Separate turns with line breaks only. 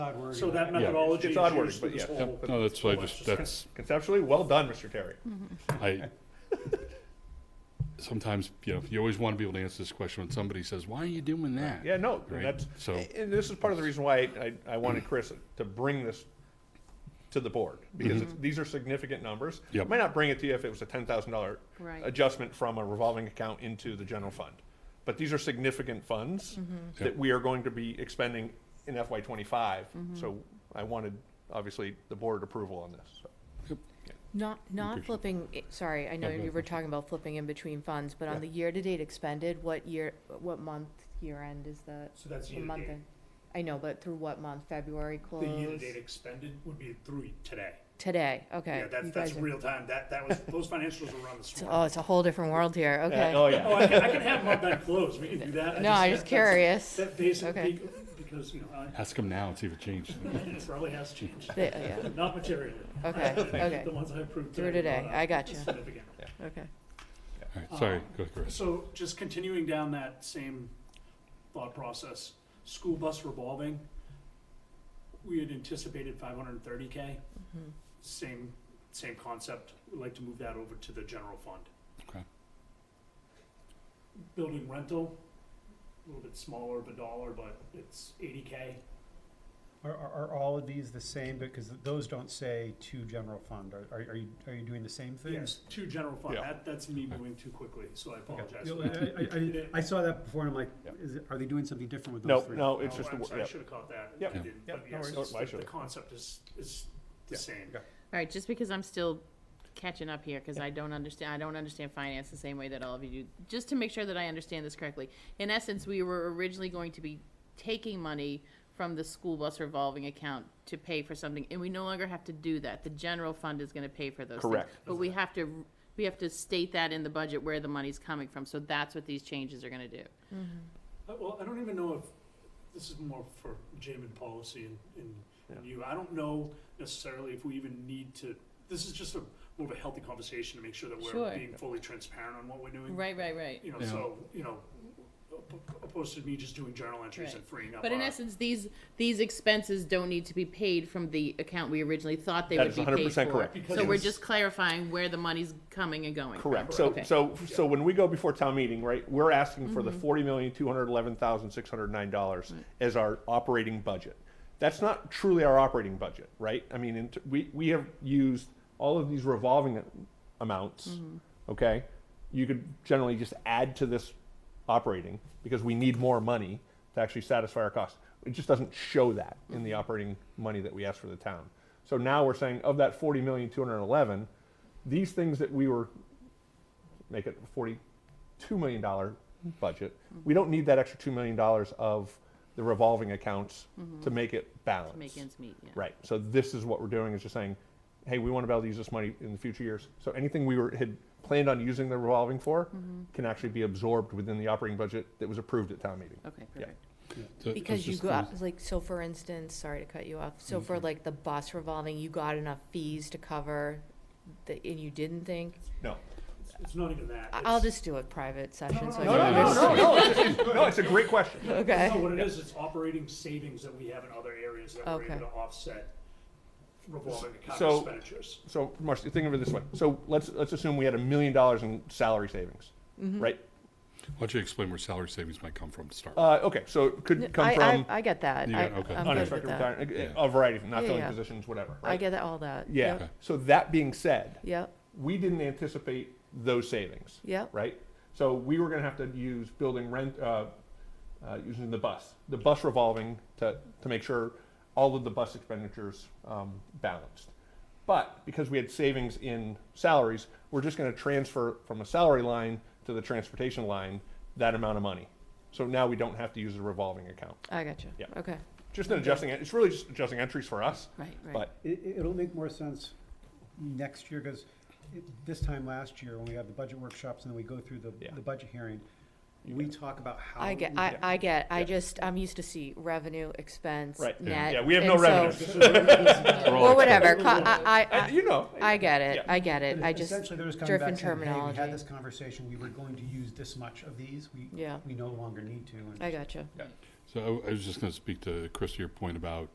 Odd word.
So that
Yeah.
methodology is
It's odd wording,
used for
but
this
yeah.
whole.
Yep.
No, that's, I just,
Well,
that's,
Conceptually, well done, Mr. Terry.
I, sometimes, you know, you always want to be able to answer this question when somebody says, why are you doing that?
Yeah, no,
Right,
that's,
so-
and this is part of the reason why I, I wanted Chris to bring this to the board, because it's, these are significant numbers.
Yep.
Might not bring it to you if it was a ten thousand dollar
Right.
adjustment from a revolving account into the general fund. But these are significant funds that
Yep.
we are going to be expending in FY twenty-five, so I wanted, obviously, the board approval on this, so.
Not, not
Appreciate it.
flipping, i- sorry, I know
Yeah, go
you
ahead.
were talking about flipping in between funds, but
Yeah.
on the year-to-date expended, what year, what month, year-end is the,
So that's
the month
year-to-date.
end? I know, but through what month? February
The
close?
year-to-date expended would be through today.
Today, okay.
Yeah, that's,
You
that's
guys are-
real time. That, that was, those financials were run this
it's- Oh,
morning.
it's a whole different world here,
Yeah, Oh,
okay.
Oh,
yeah,
I can, I can have month-end close. We can do that.
No, I'm just
that- that's-
curious.
That basic,
Okay.
bec- because, you know, I-
Ask them now and see if it changed.
it probably has changed,
They- yeah,
not materially.
Okay, okay.
The ones I approved
Through
today.
today,
not
I got you,
Significant.
okay.
All right, sorry, go ahead, Chris.
So just continuing down that same thought process, school bus revolving, we had anticipated five hundred and thirty K. Same, same concept, we'd like to move that over to the general fund.
Okay.
Building rental, a little bit smaller of a dollar, but it's eighty K.
Are, are, are all of these the same? Because those don't say to general fund. Are, are are you, are you doing the same
Yes,
things?
to general fund,
Yeah.
that, that's me moving too quickly, so I
Okay.
apologize.
You
for
uh,
know,
that.
I, I- I, I saw that before and I'm like,
Yeah.
is, it- are they doing something different with
No,
those three?
no, it's
Oh,
just, a
I'm
wor-
sorry, I
yeah.
should have caught that.
Yep.
I didn't,
Yep,
but
no
yes,
worries.
it's-
Oh, I
the
should've.
concept is, is the
Yeah.
same.
Okay.
All right, just because I'm still catching up here, because I don't understand, I don't understand finance the same way that all of you do. Just to make sure that I understand this correctly, in essence, we were originally going to be taking money from the school bus revolving account to pay for something, and we no longer have to do that. The general fund is gonna pay for those things.
Correct.
But we have to, we have to state that in the budget where the money's coming from, so that's what these changes are gonna do.
Uh, Well, I don't even know if, this is more for Jim and policy and, and and you, I don't know necessarily if we even need to, this is just a, more of a healthy conversation to make sure that we're
Sure.
being fully transparent on what we're doing.
Right, right, right.
You know,
Yeah.
so, you know, op- opposed to me just doing journal entries
Right.
and freeing up
But in
our-
essence, these, these expenses don't need to be paid from the account we originally thought they
That
would
is
be paid for.
100% correct.
Because
So we're
it's-
just clarifying where the money's coming and going. from.
Correct. So,
Okay.
so, so when we go before town meeting, right, we're asking for the forty million, two hundred eleven thousand, six hundred nine dollars as our operating budget. That's not truly our operating budget, right? I mean, in t- we, we have used all of these revolving amounts, okay? You could generally just add to this operating because we need more money to actually satisfy our costs. It just doesn't show that in the operating money that we ask for the town. So now we're saying of that forty million, two hundred eleven, these things that we were make it a forty-two million dollar budget. We don't need that extra two million dollars of the revolving accounts to make it
Mm-hmm. To
balanced.
Make ends meet, yeah.
Right. So this is what we're doing is just saying, hey, we want to be able to use this money in the future years. So anything we were had planned on using the revolving for
Mm-hmm.
can actually be absorbed within the operating budget that was approved at town meeting.
Okay,
Yeah.
perfect.
So I was
Because you
just- Mm-hmm.
got, like, so for instance, sorry to cut you off, so for like the bus revolving, you got enough fees to cover the, and you didn't think?
No.
It's- It's not even that.
I- I'll
It's-
just do a private session, so I
no, no,
can
no,
understand.
no, it's, no, it's a great question.
No,
Okay,
what it is, it's operating savings that we have in other areas that we're
Okay.
able to offset revolving account
So-
expenditures.
so Marcy, think of it this way. So let's let's assume we had a million dollars in salary savings,
Mm-hmm.
right?
Why don't you explain where salary savings might come from to start? with?
Uh, okay, so it could come
I,
from
I, I get that,
You
I,
got- okay.
I'm good with
unexpected
that.
retirement,
Yeah.
a variety of not
Yeah,
filling
yeah.
positions, whatever. Right?
I get all that,
yeah.
yep,
So that being said,
yep,
we didn't anticipate those savings,
yep,
right? So we were going to have to use building rent, uh, uh, using the bus, the bus revolving to to make sure all of the bus expenditures um, balanced. But because we had savings in salaries, we're just going to transfer from a salary line to the transportation line that amount of money. So now we don't have to use a revolving account.
I got you,
Yeah.
okay,
Just an adjusting, it's really just adjusting entries for us.
Right, right.
But
It, it- it'll make more sense next year, because this time last year, when we had the budget workshops and then we go through the,
Yeah.
the budget hearing, we talk about how.
I get,
we-
I, I get, I
Yeah.
just, I'm used to see revenue, expense,
Right.
net.
Yeah.
yeah, we have no
and so-
revenues.
We're all
Or whatever,
expenses.
co- I, I,
Uh,
I-
you know,
I get it,
Yeah.
I get it,
But
I just,
Essentially, there was coming
different
back saying, hey, we
terminology.
had this conversation, we were going to use this much of these, we,
Yeah.
we no longer need to. and-
I got you.
So I I was just going to speak to Chris, your point about